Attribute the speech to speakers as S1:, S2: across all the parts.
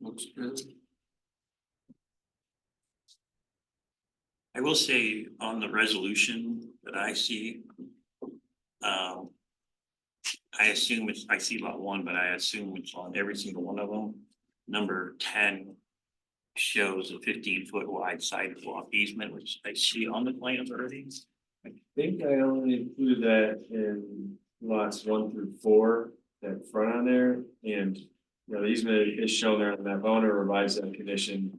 S1: looks good. I will say on the resolution that I see. Um. I assume it's, I see lot one, but I assume it's on every single one of them. Number ten. Shows a fifteen foot wide sidewalk easement, which I see on the plans already.
S2: I think I only included that in lots one through four, that front on there, and, you know, the easement is shown there on that owner revised that condition.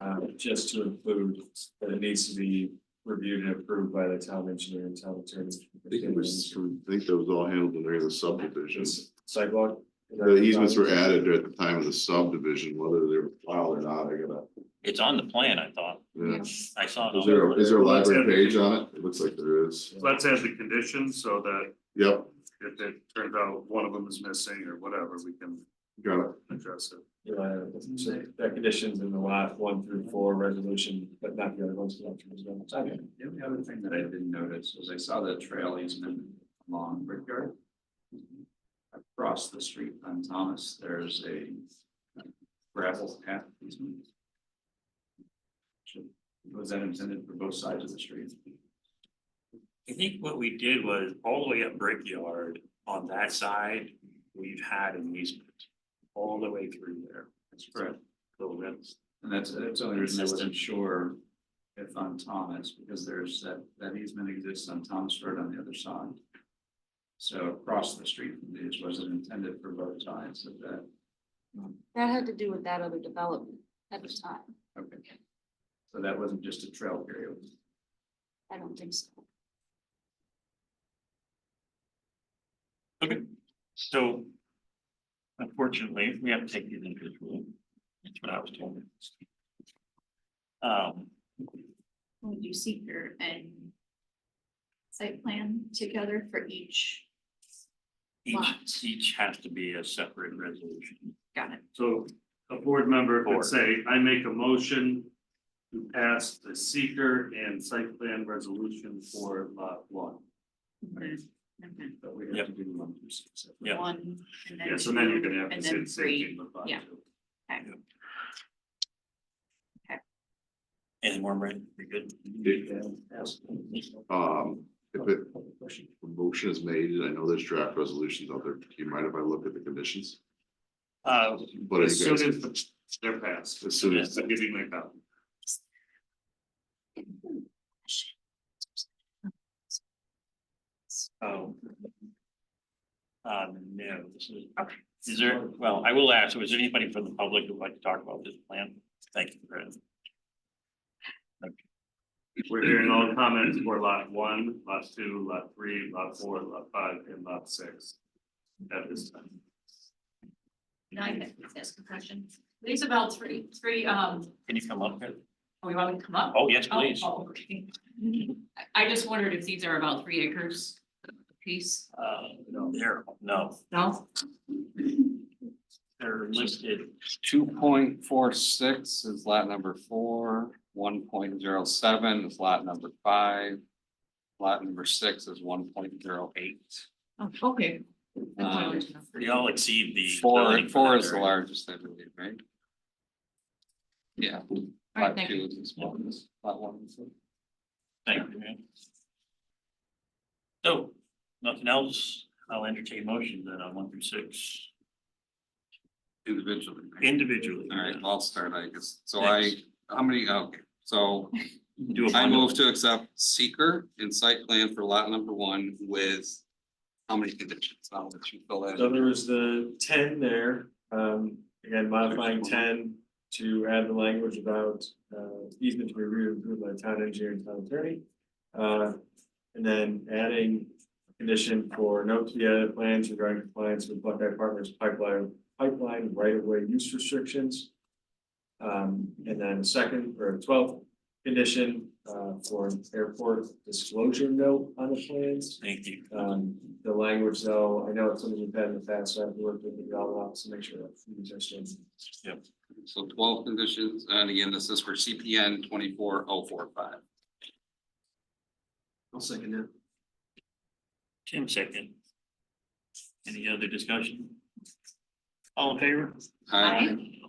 S2: Uh, just to include that it needs to be reviewed and approved by the town engineer and town attorney.
S3: I think it was, I think that was all handled in regular subdivision.
S2: Just Sidewalk.
S3: The easements were added at the time of the subdivision, whether they were filed or not, I gotta.
S1: It's on the plan, I thought.
S3: yeah.
S1: I saw. it
S3: Is
S1: on
S3: there,
S1: the
S3: a- is there a
S4: Let's
S3: library
S4: have it.
S3: page on it? It looks like there is.
S4: Let's add the condition so that
S3: Yep,
S4: if it turns out one of them is missing or whatever, we can
S3: got it.
S4: address it.
S2: Yeah, so that conditions in the lot one through four resolution, but not the other ones. Okay.
S5: The only other thing that I didn't notice was I saw the trail easement along Brickyard. Across the street on Thomas, there's a gravel path easement. Should- Was that intended for both sides of the street?
S1: I think what we did was all the way up Brickyard on that side, we've had an easement all the way through there.
S5: That's correct.
S1: So that's,
S5: And that's, that's the only reason I wasn't sure if on Thomas, because there's that, that easement exists on Thomas Road on the other side. So across the street, from these wasn't intended for both sides of that.
S6: That had to do with that other development at the time.
S5: Okay. So that wasn't just a trail period.
S6: I don't think so.
S1: okay, so. Unfortunately, we have to take these individually. That's what I was told. Um,
S7: we do seeker and site plan together for each,
S1: each,
S7: Lot.
S1: each has to be a separate resolution.
S7: got it,
S4: So a board member
S1: Board.
S4: could say, I make a motion to pass the seeker and site plan resolution for lot one.
S5: But we have to do one through six.
S1: Yeah.
S7: one, and then
S4: Yeah, so then you're
S7: two,
S4: gonna have to
S7: and
S4: say
S7: then
S4: the same thing
S7: three,
S4: with lot
S7: yeah.
S4: two.
S1: Any more, Brandon? We good?
S3: Um, if it, a motion is made, and I know there's draft resolutions out there, do you mind if I look at the conditions?
S4: Uh,
S3: But
S4: as
S3: you
S4: soon
S3: guys,
S4: as they're passed,
S3: as soon as,
S4: I'm giving my copy.
S1: Oh. Um, no, this is, is there, well, I will ask, is there anybody from the public who would like to talk about this plan? Thank you, Brandon.
S4: We're hearing all comments for lot one, lot two, lot three, lot four, lot five, and lot six. At this time.
S8: Can I get- ask a question? There's about three, three, um,
S1: Can you come up here?
S8: oh, you want me to come up?
S1: Oh, yes, please.
S8: Oh, oh, okay. I, I just wondered if these are about three acres apiece.
S1: Uh, no, there, no,
S8: No?
S1: they're listed,
S9: Two point four six is lot number four, one point zero seven is lot number five. Lot number six is one point zero eight.
S8: Oh, Okay.
S1: Uh,
S8: That's what I wanted to know.
S1: they all exceed the.
S9: Four,
S1: zoning for
S9: four
S1: that
S9: is the
S1: area.
S9: largest, I believe, right? Yeah.
S8: All right,
S9: Lot
S8: thank
S9: two
S8: you.
S9: is the smallest, lot one is the
S1: Thank you, man. So, nothing else, I'll entertain motion then on one through six
S9: individually. right?
S1: individually.
S9: All right, well, I'll start, I guess. So I, how many, okay, so
S1: Do a
S9: I
S1: bundle.
S9: move to accept seeker and site plan for lot number one with how many conditions? I'll let you fill that in.
S2: So there was the ten there, um, again modifying ten to add the language about uh easement to be reviewed and approved by the town engineer and town attorney. Uh, and then adding a condition for note to the edit plans regarding compliance with Buckeye Partners pipeline, pipeline right of way use restrictions. Um, and then second or twelfth condition uh for airport disclosure note on the plans.
S1: Thank you.
S2: Um, the language though, I know it's something you've had in the past, so I've worked with the all office to make sure that these are still.
S9: So twelve conditions, and again, this is for CPN twenty-four oh four five.
S2: I'll second that.
S1: Tim second. Any other discussion? All in favor?
S9: Aye.